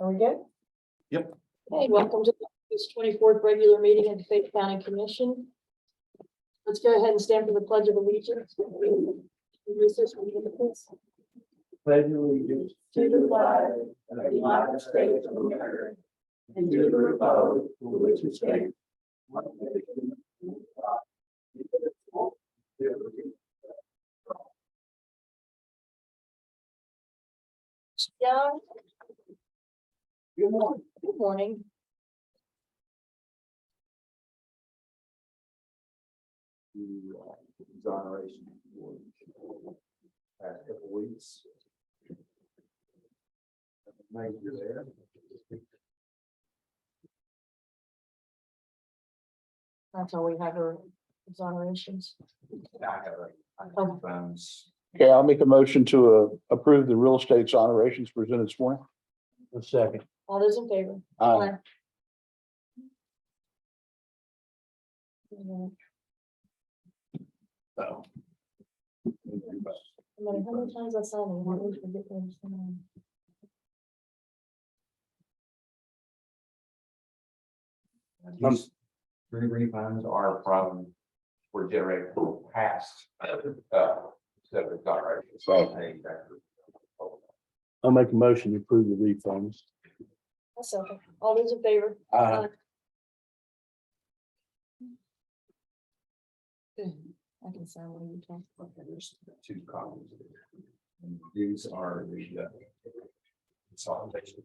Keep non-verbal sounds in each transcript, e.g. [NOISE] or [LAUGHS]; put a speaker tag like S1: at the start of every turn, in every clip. S1: Are we good?
S2: Yep.
S1: Hey, welcome to this twenty-fourth regular meeting of the Fayette County Commission. Let's go ahead and stand for the pledge of allegiance. Recess from the pulpit.
S2: Pledge allegiance
S1: to the flag
S2: of
S1: the United States of
S2: America and to the republic for which it stands.
S1: Young. Good morning.
S2: Exoneration. board, Past couple weeks. Thank you there.
S1: That's all we have are exonerations.
S2: I have a- I have phones.
S3: Okay, I'll make a motion to uh, approve the real estate exonerations presented this morning.
S4: A second.
S1: All those in favor?
S3: Uh,
S1: Mhm.
S2: So.
S1: No matter how many times I saw them, I always forget their name.
S2: These three refunds are from, were generated from past, uh, seven directions.
S3: Right.
S4: I'll make a motion to approve the refunds.
S1: I'll second. All those in favor?
S4: Aye.
S1: Good. I can sign when you talk.
S2: Okay, there's two copies. And These are the uh, consolidation.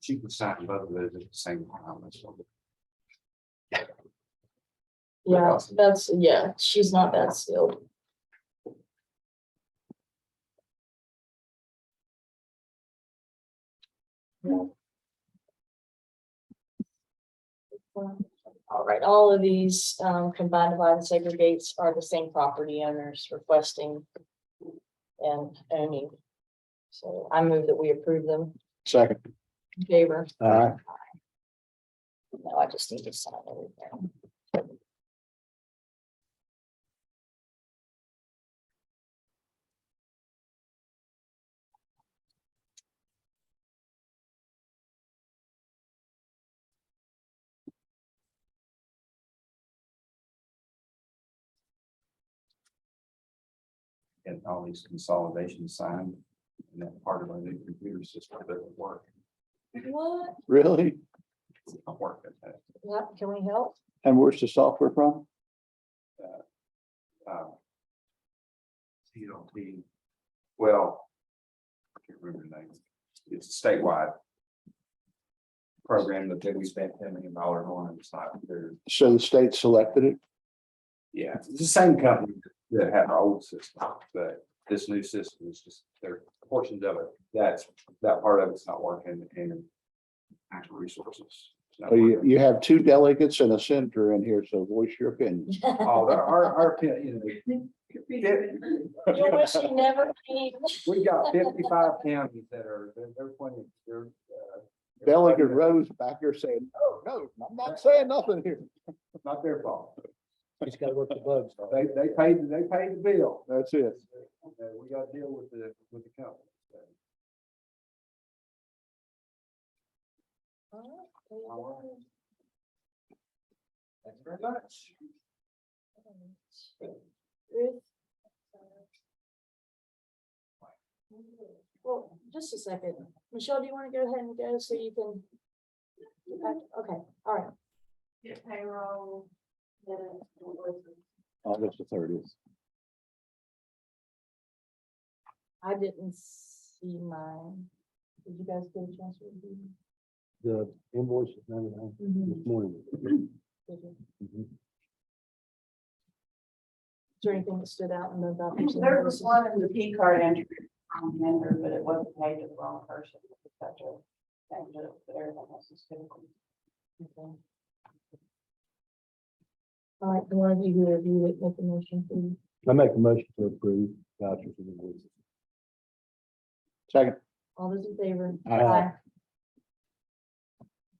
S2: She can sign both of those at the same time. that's all.
S1: Yeah, that's, yeah, she's not that skilled. All right, all of these um, combined divide and segregates are the same property owners requesting and owning. So I move that we approve them
S3: second.
S1: in favor.
S3: Uh,
S1: No, I just need to sign everything.
S2: And all these consolidations signed. And that part of my new computer system doesn't work.
S1: What?
S3: really?
S2: It's not working.
S1: Yeah, can we help? [LAUGHS]
S3: And where's the software from?
S2: uh, CLT, well, I can't remember the name, it's a statewide program that they we spent ten million dollars on, and it's not, there.
S3: So the state selected it?
S2: yeah, it's the same company that had our old system, but this new system is just, there are portions of it, that's, that part of it's not working, and actual resources. it's not
S3: Oh, you,
S2: working.
S3: you have two delegates and a senator in here, so voice your opinion.
S2: Oh, our, our, our, [LAUGHS] you know,
S1: You wish you never came.
S2: [LAUGHS] We got fifty-five counties that are, they're, they're pointing, they're. uh, they're
S3: Delegate
S2: pointing- oh,
S3: Rose back here saying, no, no, I'm not saying nothing here.
S2: it's Not their fault.
S4: Just gotta work the bugs.
S2: [LAUGHS] They, they paid, they paid the bill.
S3: That's it.
S2: Uh, We gotta deal with the, with the company. so. Thank you very much.
S1: Ruth? Well, just a second. Michelle, do you want to go ahead and go so you can? Okay, all right. payroll.
S3: August the thirtieth.
S1: I didn't see mine. Did you guys get a chance to review?
S4: The invoice is not on
S5: Mm-hmm.
S4: this morning.
S1: Did you?
S4: Mhm.
S1: Is there anything that stood out in the documents?
S5: There was one in the P card entry from vendor, but it wasn't paid to the wrong person. That's a- that was it, but everything else is typical.
S1: All right, the one of you who reviewed it, make the motion, please.
S4: I make a motion to approve vouchers and invoices.
S3: Second,
S1: All those in favor?
S4: Aye.